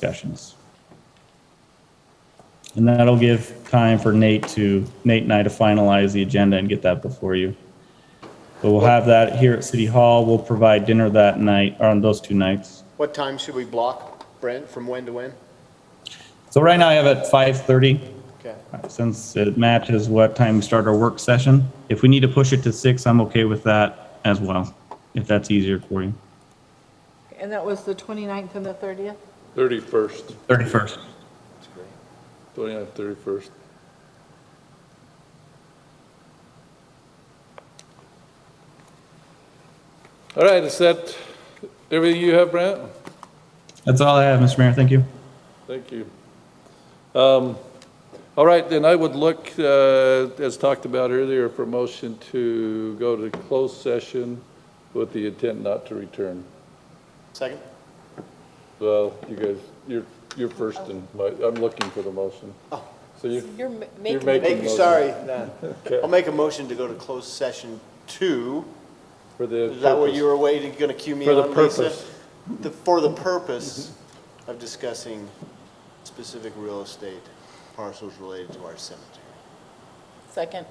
discussions. And that'll give time for Nate to, Nate and I to finalize the agenda and get that before you. But we'll have that here at City Hall. We'll provide dinner that night, or on those two nights. What time should we block, Brent, from when to when? So right now I have it five thirty, Okay. since it matches what time we start our work session. If we need to push it to six, I'm okay with that as well, if that's easier for you. And that was the 29th and the 30th? 31st, Thirty-first. 29th, 31st. All right, is that everything you have, Brent? That's all I have, Mr. Mayor. Thank you. Thank you. Um, All right, then I would look, uh, as talked about earlier, for motion to go to closed session with the intent not to return. Second? Well, you guys, you're, you're first in, my- I'm looking for the motion. So you, You're ma- You're making, making- it- Make, sorry, no. I'll make a motion to go to closed session two. for the. Is that what purpose. you were waiting, gonna cue me For the on, Lisa? purpose. The- For the purpose of discussing specific real estate parcels related to our cemetery. second,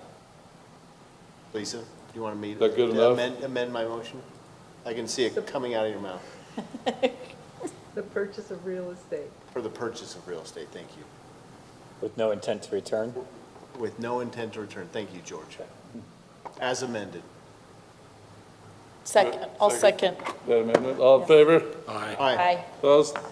Lisa, you wanna meet? That good enough? amend- Amend my motion? I can see it coming out of your mouth, the purchase of real estate. for the purchase of real estate, thank you. With no intent to return? With no intent to return, thank you, George. As amended. Second, I'll second. That amendment, all in favor? Aye. Aye. Opposed?